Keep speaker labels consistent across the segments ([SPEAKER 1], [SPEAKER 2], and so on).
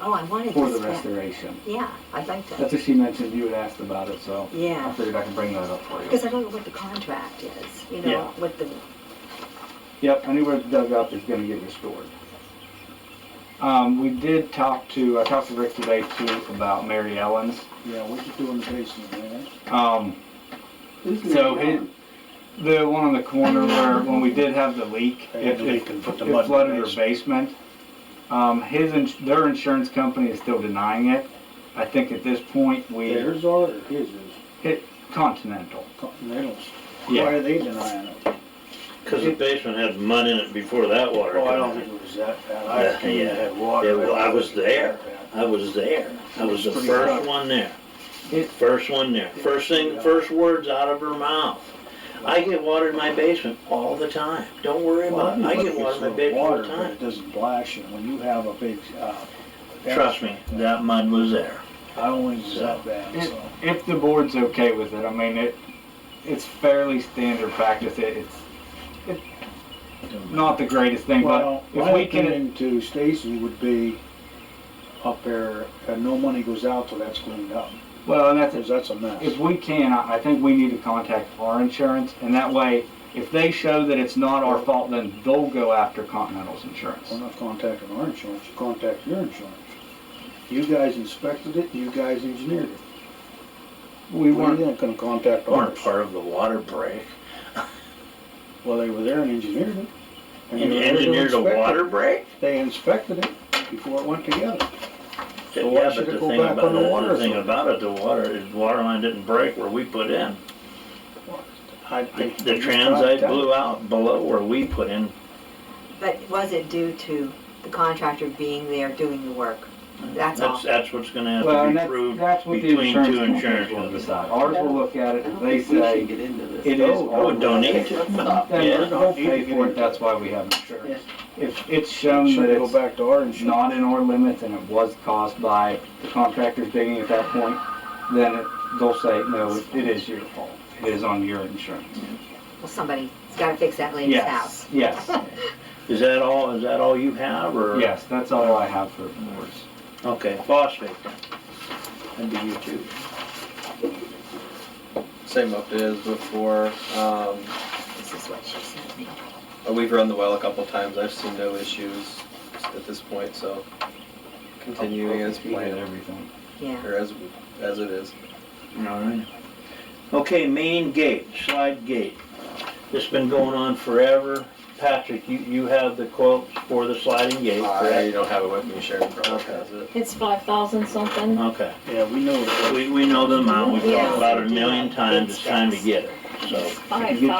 [SPEAKER 1] Oh, I wanted
[SPEAKER 2] for the
[SPEAKER 1] this back.
[SPEAKER 2] restoration.
[SPEAKER 1] Yeah, I'd like
[SPEAKER 2] That's
[SPEAKER 1] to,
[SPEAKER 2] what she mentioned, you had asked about it, so I
[SPEAKER 1] yeah,
[SPEAKER 2] figured I could bring that up for you.
[SPEAKER 1] because I don't know what the contract is, you know,
[SPEAKER 2] Yeah.
[SPEAKER 1] what the,
[SPEAKER 2] Yep, anywhere dug up is gonna get restored. Um, we did talk to, I talked to Rick today too about Mary Ellen's.
[SPEAKER 3] Yeah, what you do in the basement, man?
[SPEAKER 2] Um,
[SPEAKER 3] Who's
[SPEAKER 2] So
[SPEAKER 3] Mary Ellen?
[SPEAKER 2] the one on the corner where, when we did have the leak, it,
[SPEAKER 3] They
[SPEAKER 2] it
[SPEAKER 3] can put the mud
[SPEAKER 2] it
[SPEAKER 3] in
[SPEAKER 2] flooded
[SPEAKER 3] the
[SPEAKER 2] her basement. Um, his, ins- their insurance company is still denying it. I think at this point, we,
[SPEAKER 3] Theirs are, or his is,
[SPEAKER 2] Continental.
[SPEAKER 3] they don't, why
[SPEAKER 2] Yeah,
[SPEAKER 3] are they denying it?
[SPEAKER 4] Because the basement had mud in it before that water.
[SPEAKER 3] Oh, I
[SPEAKER 4] come
[SPEAKER 3] don't
[SPEAKER 4] in.
[SPEAKER 3] think it was that bad,
[SPEAKER 4] Yeah,
[SPEAKER 3] I think
[SPEAKER 4] yeah.
[SPEAKER 3] it had water.
[SPEAKER 4] Yeah, well, I was there.
[SPEAKER 3] Yeah.
[SPEAKER 4] I was there. I was the
[SPEAKER 2] Pretty
[SPEAKER 4] first
[SPEAKER 2] rough.
[SPEAKER 4] one there.
[SPEAKER 2] It-
[SPEAKER 4] First one there. First thing, first words out of her mouth. I get water in my basement all the time. Don't worry about it. I get water in my
[SPEAKER 3] It's
[SPEAKER 4] basement all
[SPEAKER 3] water,
[SPEAKER 4] the
[SPEAKER 3] but
[SPEAKER 4] time.
[SPEAKER 3] it doesn't splash, and when you have a big, uh.
[SPEAKER 4] Trust me, that mud was there.
[SPEAKER 3] I don't think it's that bad, so.
[SPEAKER 2] if the board's okay with it, I mean, it, it's fairly standard practice. It, it's not the greatest thing, but
[SPEAKER 3] Well,
[SPEAKER 2] if
[SPEAKER 3] my
[SPEAKER 2] we can,
[SPEAKER 3] opinion to Stacy would be up there, and no money goes out till that's cleaned up,
[SPEAKER 2] well, and that's,
[SPEAKER 3] because that's a mess.
[SPEAKER 2] If we can, I I think we need to contact our insurance, and that way, if they show that it's not our fault, then they'll go after Continental's insurance.
[SPEAKER 3] We're not contacting our insurance, you contact your insurance. You guys inspected it, you guys engineered it.
[SPEAKER 2] We
[SPEAKER 3] We're
[SPEAKER 2] weren't,
[SPEAKER 3] not gonna contact
[SPEAKER 4] Weren't
[SPEAKER 3] ours.
[SPEAKER 4] part of the water break.
[SPEAKER 3] Well, they were there and engineered it. they
[SPEAKER 4] And
[SPEAKER 3] were there to
[SPEAKER 4] engineered a
[SPEAKER 3] inspect it.
[SPEAKER 4] water break?
[SPEAKER 3] They inspected it before it went together. So why
[SPEAKER 4] Yeah,
[SPEAKER 3] should it
[SPEAKER 4] but the
[SPEAKER 3] go
[SPEAKER 4] thing
[SPEAKER 3] back
[SPEAKER 4] about,
[SPEAKER 3] on the
[SPEAKER 4] it-
[SPEAKER 3] water
[SPEAKER 4] the thing
[SPEAKER 3] system?
[SPEAKER 4] about it, the water, the water line didn't break where we put in.
[SPEAKER 3] I
[SPEAKER 4] The
[SPEAKER 3] think
[SPEAKER 4] the
[SPEAKER 3] you tried
[SPEAKER 4] transite
[SPEAKER 3] that.
[SPEAKER 4] blew out below where we put in
[SPEAKER 1] but was it due to the contractor being there doing the work? That's all.
[SPEAKER 4] That's, that's what's gonna
[SPEAKER 2] well,
[SPEAKER 4] have to
[SPEAKER 2] and
[SPEAKER 4] be
[SPEAKER 2] that's,
[SPEAKER 4] proved
[SPEAKER 2] that's what the
[SPEAKER 4] between
[SPEAKER 2] insurance
[SPEAKER 4] two
[SPEAKER 2] companies will
[SPEAKER 4] insurance companies.
[SPEAKER 2] decide. Ours will look at it, if they say it is
[SPEAKER 4] I
[SPEAKER 2] our
[SPEAKER 4] would donate
[SPEAKER 2] fault,
[SPEAKER 4] to them.
[SPEAKER 2] then
[SPEAKER 4] Yeah,
[SPEAKER 2] they'll pay for it, that's why we have insurance. If it's shown
[SPEAKER 3] Should
[SPEAKER 2] that
[SPEAKER 3] go
[SPEAKER 2] it's
[SPEAKER 3] back to our insurance.
[SPEAKER 2] not in our limits and it was caused by the contractors digging at that point, then it- they'll say, no, it- it is your fault, it is on your insurance.
[SPEAKER 1] Well, somebody's gotta fix that lady's
[SPEAKER 2] Yes,
[SPEAKER 1] house.
[SPEAKER 2] yes.
[SPEAKER 4] is that all, is that all you have, or?
[SPEAKER 2] Yes, that's all I have for boards.
[SPEAKER 4] Okay, phosphate then. That'd be you too.
[SPEAKER 5] Same update as before. Um,
[SPEAKER 1] This is what she sent me.
[SPEAKER 5] we've run the well a couple times. I've seen no issues at this point, so continuing as
[SPEAKER 2] We had
[SPEAKER 5] planned
[SPEAKER 2] everything.
[SPEAKER 1] Yeah,
[SPEAKER 5] or as as it is.
[SPEAKER 4] Alright. Okay, main gate, slide gate. It's been going on forever. Patrick, you, you have the quotes for the sliding gate,
[SPEAKER 5] I
[SPEAKER 4] correct?
[SPEAKER 5] don't have it with me. Sharon probably has it.
[SPEAKER 6] It's five thousand something.
[SPEAKER 4] Okay,
[SPEAKER 3] Yeah, we know it.
[SPEAKER 4] we, we know the amount, we've
[SPEAKER 6] Yeah.
[SPEAKER 4] talked about it a million times, it's time to get it, so.
[SPEAKER 6] Five
[SPEAKER 2] you
[SPEAKER 4] I,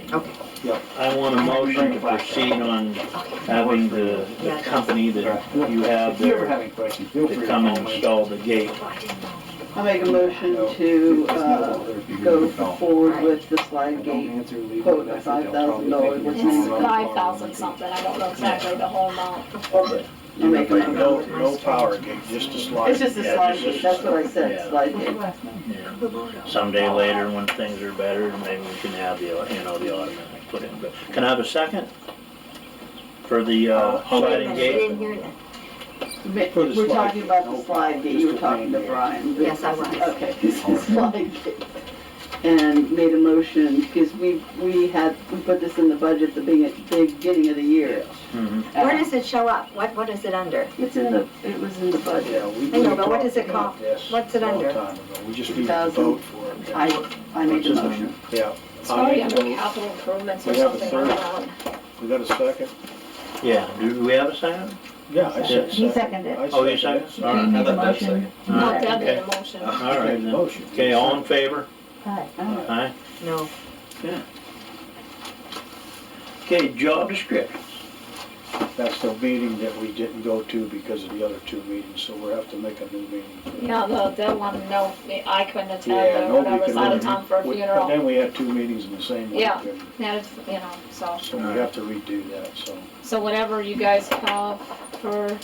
[SPEAKER 6] thousand.
[SPEAKER 1] okay,
[SPEAKER 4] I want a motion to proceed on
[SPEAKER 1] okay.
[SPEAKER 4] having the, the company that you have
[SPEAKER 2] If you ever
[SPEAKER 4] there
[SPEAKER 2] have any questions, feel free
[SPEAKER 4] to
[SPEAKER 2] to
[SPEAKER 4] come
[SPEAKER 2] call
[SPEAKER 4] and
[SPEAKER 2] me.
[SPEAKER 4] install the gate.
[SPEAKER 1] Well, I didn't know.
[SPEAKER 7] I make a motion to, uh, go forward with the slide gate. quote of $5,000 was
[SPEAKER 6] It's five thousand something. I don't know exactly the whole amount.
[SPEAKER 7] I make a
[SPEAKER 3] No,
[SPEAKER 7] motion.
[SPEAKER 3] no power gate, just a slide.
[SPEAKER 7] It's just a
[SPEAKER 4] Yeah,
[SPEAKER 7] slide
[SPEAKER 4] it's just-
[SPEAKER 7] gate, that's what I
[SPEAKER 4] yeah.
[SPEAKER 7] said, slide gate.
[SPEAKER 4] Yeah. Someday later, when things are better, maybe we can have the, you know, the automatic put in, but can I have a second? For the, uh,
[SPEAKER 2] Oh,
[SPEAKER 1] Hold on a
[SPEAKER 4] sliding
[SPEAKER 1] minute, I didn't
[SPEAKER 4] gate?
[SPEAKER 1] hear that.
[SPEAKER 7] Ma-
[SPEAKER 3] Put a
[SPEAKER 7] We're
[SPEAKER 3] slide
[SPEAKER 7] talking
[SPEAKER 3] gate,
[SPEAKER 7] about
[SPEAKER 3] no
[SPEAKER 7] the slide gate,
[SPEAKER 3] just
[SPEAKER 7] you
[SPEAKER 3] a
[SPEAKER 7] were talking to
[SPEAKER 3] main gate.
[SPEAKER 7] Brian.
[SPEAKER 1] Yes, I was.
[SPEAKER 7] Okay, this is slide gate. And made a motion, because we, we had, we put this in the budget at the big- big beginning of the year.
[SPEAKER 4] Mhm.
[SPEAKER 2] Uh,
[SPEAKER 1] Where does it show up? What, what is it under?
[SPEAKER 7] It's in the, it was in the budget.
[SPEAKER 3] Yeah, we.
[SPEAKER 1] I know,
[SPEAKER 3] we
[SPEAKER 1] but what does it
[SPEAKER 3] talked
[SPEAKER 1] cost?
[SPEAKER 3] about this
[SPEAKER 1] What's it
[SPEAKER 3] a long
[SPEAKER 1] under?
[SPEAKER 3] time ago. We just need to
[SPEAKER 7] 2,000.
[SPEAKER 3] vote for it.
[SPEAKER 7] I, I made the motion.
[SPEAKER 3] Yeah.
[SPEAKER 6] It's
[SPEAKER 3] I
[SPEAKER 6] probably
[SPEAKER 3] make a
[SPEAKER 6] under
[SPEAKER 3] vote.
[SPEAKER 6] capital improvements or
[SPEAKER 3] We have a
[SPEAKER 6] something like
[SPEAKER 3] third.
[SPEAKER 6] that.
[SPEAKER 3] We got a second?
[SPEAKER 4] Yeah, do we have a second?
[SPEAKER 3] Yeah, I said
[SPEAKER 4] He
[SPEAKER 3] second. I
[SPEAKER 4] Oh, you
[SPEAKER 3] seconded it.
[SPEAKER 4] second? All right.
[SPEAKER 5] I thought that was second.
[SPEAKER 4] All
[SPEAKER 6] Not
[SPEAKER 4] right,
[SPEAKER 6] that big
[SPEAKER 4] okay.
[SPEAKER 6] a motion.
[SPEAKER 4] All right,
[SPEAKER 3] Made the
[SPEAKER 4] then.
[SPEAKER 3] motion.
[SPEAKER 4] okay, all in favor?
[SPEAKER 7] Oh.
[SPEAKER 3] Aye.
[SPEAKER 4] Aye.
[SPEAKER 1] No,
[SPEAKER 4] Okay, job descriptions.
[SPEAKER 3] That's the meeting that we didn't go to because of the other two meetings, so we'll have to make a new meeting. for that.
[SPEAKER 6] Yeah, the, that one, no, I couldn't
[SPEAKER 3] Yeah,
[SPEAKER 6] attend or
[SPEAKER 3] nobody
[SPEAKER 6] I was
[SPEAKER 3] can.
[SPEAKER 6] out of town for a
[SPEAKER 3] we- But
[SPEAKER 6] funeral.
[SPEAKER 3] then we had two meetings in the same week.
[SPEAKER 6] Yeah.
[SPEAKER 3] and
[SPEAKER 6] That is, you know, so,
[SPEAKER 3] So we have to redo that, so.
[SPEAKER 6] so whatever you guys have for,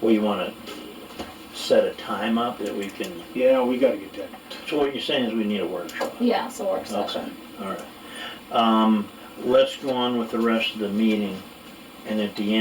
[SPEAKER 4] Well, you wanna set a time up that we can,
[SPEAKER 3] Yeah, we gotta get that.
[SPEAKER 4] so what you're saying is we need a workshop?
[SPEAKER 6] yeah, so work
[SPEAKER 4] Okay,
[SPEAKER 6] session.
[SPEAKER 4] all right. Um, let's go on with the rest of the meeting, and at the end.